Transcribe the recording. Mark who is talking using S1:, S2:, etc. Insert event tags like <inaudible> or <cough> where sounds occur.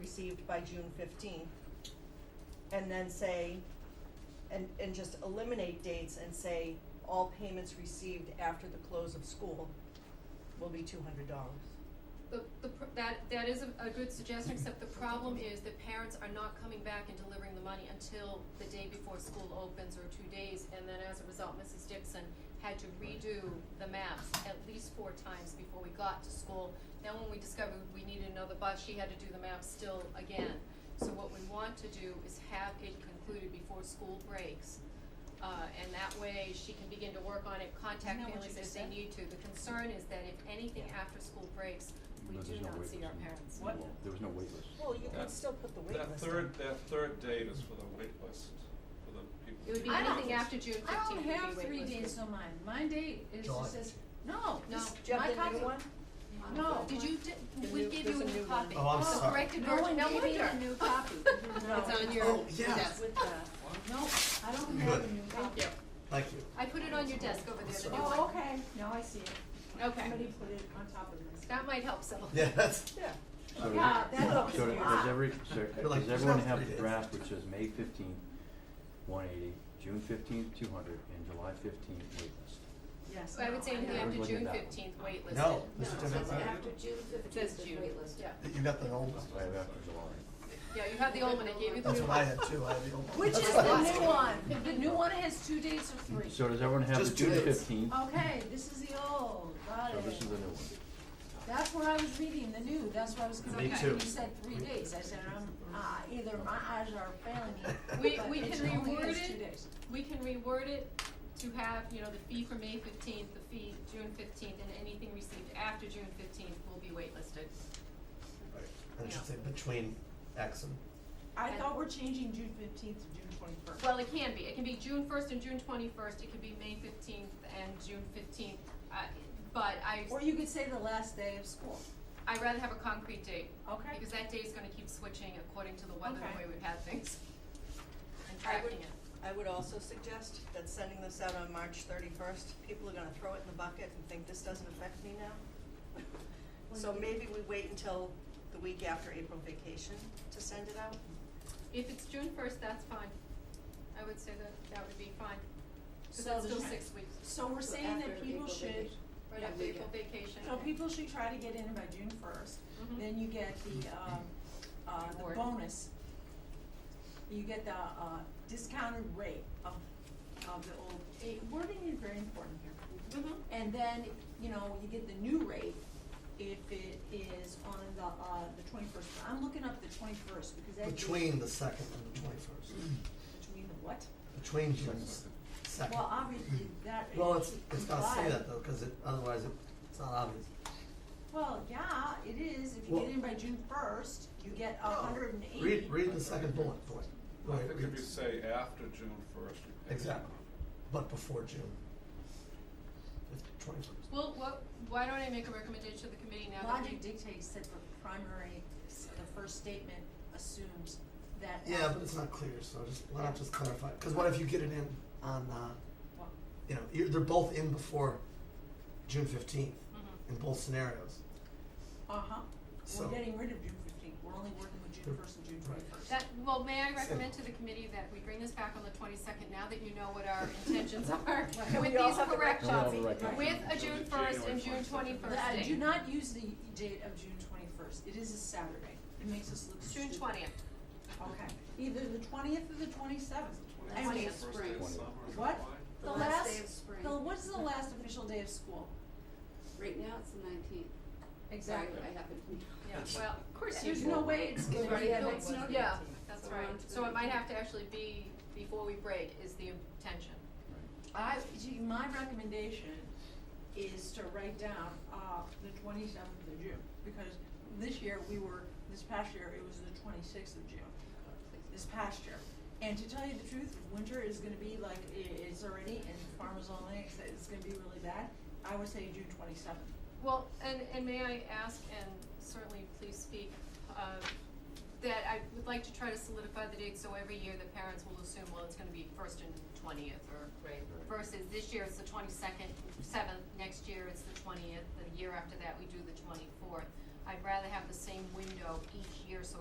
S1: received by June fifteenth. And then say, and, and just eliminate dates and say, all payments received after the close of school will be two hundred dollars.
S2: The, the, pr- that, that is a, a good suggestion, except the problem is that parents are not coming back and delivering the money until the day before school opens or two days, and then as a result, Mrs. Dixon had to redo the maps at least four times before we got to school. Then when we discovered we needed another bus, she had to do the maps still again. So what we want to do is have it concluded before school breaks, uh, and that way she can begin to work on it, contact
S1: Isn't that what
S2: families
S1: you
S2: if
S1: just
S2: they
S1: said?
S2: need to. The concern is that if anything
S1: Yeah.
S2: after school breaks, we
S3: No,
S2: do
S3: there's no
S2: not
S3: wait
S2: see
S3: list,
S2: our
S3: no.
S2: parents.
S1: What?
S3: There was no wait list.
S1: Well, you
S4: Yeah.
S1: could still put the wait
S4: That
S1: list
S4: third,
S1: on.
S4: that third date is for the wait list, for the people.
S2: It would be
S5: I don't-
S2: anything after June
S5: I
S2: fifteenth would
S5: don't
S2: be
S5: have three
S2: waitlisted.
S5: days on mine. My date is,
S6: July
S5: just says, no,
S2: No.
S5: this,
S1: Do you
S5: my
S1: have the
S5: copy.
S1: new one?
S5: No.
S2: Did you, di-
S1: The
S2: we
S1: new-
S2: gave
S1: there's
S2: you a
S1: a
S2: new
S1: new one.
S2: copy.
S6: Oh, I'm
S2: It's a
S6: sorry.
S2: corrected
S5: No
S2: version,
S5: one
S2: no
S5: gave me a
S2: wonder. <laughs>
S5: new copy.
S1: No.
S2: It's on your
S6: Oh, yeah.
S2: desk.
S1: With the,
S5: No, I don't have a new copy.
S6: Thank you.
S2: I put it on your desk over there, the new one.
S5: Oh, okay, now I see it.
S2: Okay.
S5: Somebody put it on top of this.
S2: That might help some.
S6: Yeah, that's.
S1: yeah,
S3: So,
S5: Yeah, that
S1: helps
S3: so
S1: me a
S3: does
S1: lot.
S3: every, so
S6: You're like,
S3: does
S6: there's
S3: everyone
S6: not
S3: have
S6: three
S3: the
S6: days.
S3: draft which says May fifteenth, one eighty, June fifteenth, two hundred, and July fifteenth wait list?
S1: yes.
S2: So I would say anything
S3: Yeah.
S2: after
S3: Everybody
S2: June
S3: got one.
S2: fifteenth, waitlisted.
S6: No, this
S5: No,
S6: is
S5: it
S6: different.
S5: says
S7: After June
S2: It says
S7: fifteenth is
S2: June.
S7: waitlisted.
S2: Yeah.
S6: You got the old one.
S3: Right after July.
S2: Yeah, you have the old one, I gave you the
S6: That's
S2: new
S6: what I
S2: one.
S6: had too. I had the old one.
S5: Which
S6: That's
S5: is
S6: what
S5: the
S6: I-
S5: new one. The new one has two dates of three.
S3: So does everyone have the
S6: Just two
S3: June
S6: days.
S3: fifteenth?
S2: Oh,
S5: Okay, this is the old, got
S3: So
S5: it.
S3: this is the new one.
S5: That's where I was reading the new, that's why I was
S2: Me
S5: confused.
S6: too.
S5: You said three days, I said, I'm, ah, either my eyes are failing me.
S2: We-
S5: but
S2: we
S5: it's
S2: can
S5: only
S2: reword
S5: is two
S2: it.
S5: days.
S2: We can reword it to have, you know, the fee for May fifteenth, the fee June fifteenth, and anything received after June fifteenth will be waitlisted.
S6: Right. And it should say between X and.
S2: I thought
S5: we're changing June fifteenth to June twenty-first.
S2: Well, it can be, it can be June first and June twenty-first, it could be May fifteenth and June fifteenth, uh, but I,
S5: Or you could say the last day of school.
S2: I'd rather have a concrete date.
S5: Okay.
S2: Because that day is gonna keep switching according to the weather,
S5: Okay.
S2: the way we've had things, and
S1: I would,
S2: tracking it.
S1: I would also suggest that sending this out on March thirty-first, people are gonna throw it in the bucket and think this doesn't affect me now. So maybe we wait until the week after April vacation to send it out.
S2: If it's June first, that's fine, I would say that, that would be fine, cause
S5: So
S2: that's
S5: the
S2: still
S5: tra-
S2: six weeks,
S5: So we're
S7: So
S5: saying
S7: after
S5: that people
S7: April
S5: should,
S7: vacation.
S2: right
S7: Yeah,
S2: after
S7: we
S2: April
S7: do.
S2: vacation.
S5: so people should try to get in by June first,
S2: Mhm.
S5: then you get the, um, uh, the
S2: Reward.
S5: bonus. You get the, uh, discounted rate of, of the old, eh, wording is very important here.
S2: Mhm.
S5: And then, you know, you get the new rate if it is on the, uh, the twenty-first. I'm looking up the twenty-first because that gives-
S6: Between the second and the twenty-first.
S5: Between the what?
S6: Between June's second.
S5: Well, obviously, that
S6: Well, it's, it's gotta say
S5: implies-
S6: that though, cause it, otherwise it, it's not obvious.
S5: Well, yeah, it is. If you
S6: Well-
S5: get in by June first, you get a hundred and eighty.
S6: Read, read the second bullet point.
S4: I
S6: Wait,
S4: think
S6: read-
S4: if you say after June first, you pay.
S6: Exactly. But before June. Twenty-first.
S2: Well, what, why don't I make a recommendation to the committee now that we
S5: Logic dictates that the primary, the first statement assumes that.
S6: Yeah, but it's not clear, so just, why not just clarify, cause what if you get it in on, uh,
S5: Well,
S6: you know, you're, they're both in before June fifteenth
S2: Mhm.
S6: in both scenarios.
S5: Uh-huh. We're
S6: So-
S5: getting rid of June fifteenth. We're only working with June first and June
S6: Right.
S5: twenty-first.
S2: That, well, may I recommend to the committee that we bring this back on the twenty-second, now that you know what our <laughs> intentions are, with
S1: We all
S2: these
S1: have the
S2: corrections,
S3: Now we have the right
S2: with
S3: copy.
S2: a June first and June twenty-first date.
S5: do not use the date of June twenty-first. It is a Saturday. It makes us look
S2: June
S5: stupid.
S2: twentieth,
S5: Okay. Either the twentieth or the twenty-seventh.
S4: Twenty-
S5: I mean,
S2: Twentieth.
S4: first day of
S3: Spring.
S4: summer is
S5: What?
S4: July.
S7: The last day of spring.
S5: The, what is the last official day of school?
S7: Right now, it's the nineteenth. I happen to know.
S2: yeah, well, of course you.
S5: There's no way it's gonna
S7: It's already
S5: be,
S7: had
S2: No,
S7: that
S2: it's
S7: one.
S2: not-
S7: the
S2: yeah,
S7: 18th.
S2: that's
S7: So we're
S2: right,
S7: on to
S2: so
S7: the
S2: it might have to actually be before we break is the intention.
S5: I, gee, my recommendation is to write down, uh, the twenty-seventh of June, because this year we were, this past year, it was the twenty-sixth of June, this past year. And to tell you the truth, winter is gonna be like, i- it's already, and farmers only, it's, it's gonna be really bad, I would say June twenty-seventh.
S2: Well, and, and may I ask, and certainly please speak, uh, that I would like to try to solidify the date, so every year the parents will assume, well, it's gonna be first and twentieth, or
S7: Right.
S2: versus this year it's the twenty-second, seventh, next year it's the twentieth, the year after that we do the twenty-fourth. I'd rather have the same window each year, so